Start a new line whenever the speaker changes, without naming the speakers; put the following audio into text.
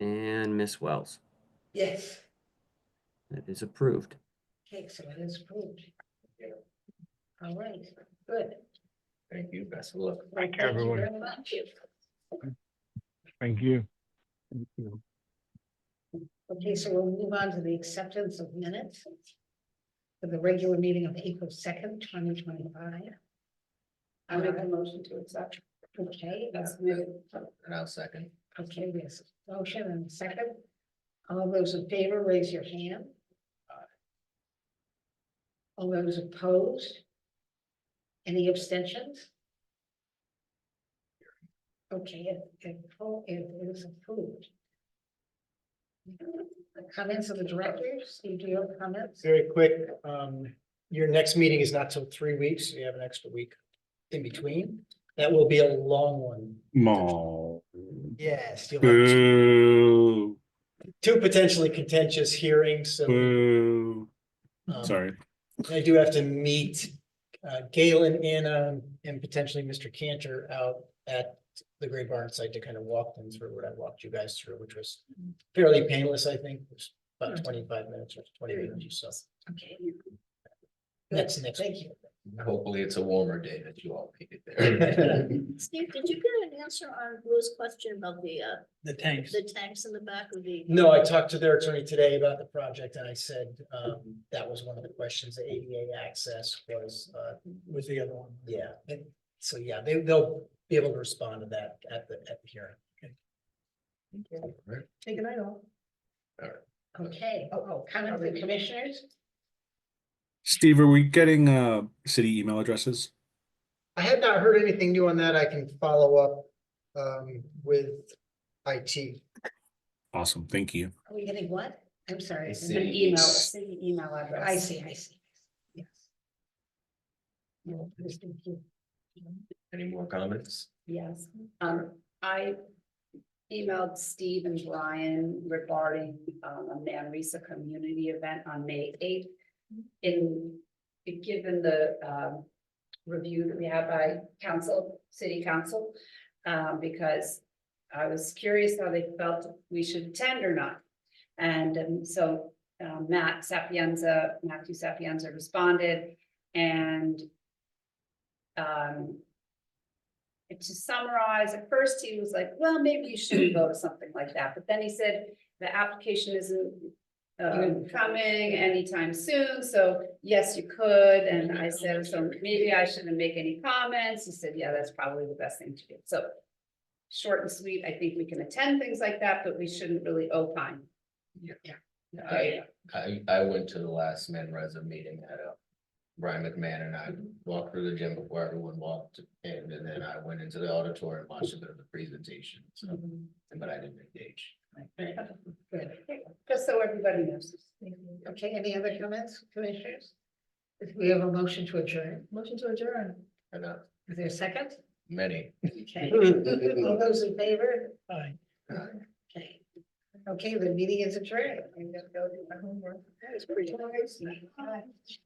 And Miss Wells,
Yes.
that is approved.
Okay, so it is approved. All right, good.
Thank you, best of luck.
Thank
you, everyone.
very much.
Thank you.
Okay, so we'll move on to the acceptance of minutes. For the regular meeting of April second, twenty twenty-five. I make a motion to accept. Okay, that's good.
And I'll second.
Okay, there's a motion and a second. All those in favor, raise your hand. All those opposed? Any abstentions? Okay, it, it, oh, it is approved. Comments of the directors, you do your comments?
Very quick, um, your next meeting is not till three weeks, so you have an extra week in between. That will be a long one.
Mo.
Yes, you'll have
Mm.
two-
Boo.
two potentially contentious hearings, so.
Boo.
um,
Mm. Sorry.
I do have to meet, uh, Gail and Anna and potentially Mr. Cantor out at the Great Barn site to kind of walk them through what I walked you guys through, which was fairly painless, I think. It was About twenty-five minutes or twenty minutes or so.
Okay.
Next, next.
Thank you.
Hopefully it's a warmer day that you all make it there.
Steve, did you get an answer on Lou's question about the, uh,
The tanks.
the tanks in the back of the?
No, I talked to their attorney today about the project and I said, um, that was one of the questions, the ADA access was, uh. Was the other one? Yeah, and so, yeah, they, they'll be able to respond to that at the, at the hearing.
Right.
Take it, I know.
Okay, oh, oh, comment of the commissioners?
Steve, are we getting uh city email addresses?
I had not heard anything new on that. I can follow up, um, with IT.
Awesome. Thank you.
Are we getting what? I'm sorry.
It's
an
the-
email.
City email address.
I see, I see. Yes. No, please, thank you.
Any more comments?
Yes, um, I emailed Steve and Brian regarding, um, a Manresa community event on May eighth. In, given the, um, review that we have by council, city council, um, because I was curious how they felt we should attend or not. And, um, so, um, Matt Sapienza, Matthew Sapienza responded and um, and to summarize, at first he was like, well, maybe you shouldn't go to something like that, but then he said, the application isn't. um, coming anytime soon, so yes, you could, and I said, so maybe I shouldn't make any comments, he said, yeah, that's probably the best thing to do, so. Short and sweet, I think we can attend things like that, but we shouldn't really opine.
I, I, I went to the last man Reza meeting at uh Brian McMahon and I walked through the gym before everyone walked in, and then I went into the auditorium, watched a bit of the presentation, so, but I didn't engage.
Good.
Just so everybody knows.
Okay, any other comments, commissioners? If we have a motion to adjourn,
Motion to adjourn.
And uh,
is there a second?
many.
Okay. All those in favor?
Aye.
Okay. Okay, the meeting is adjourned. I'm gonna go do my homework.
That is pretty.
Bye.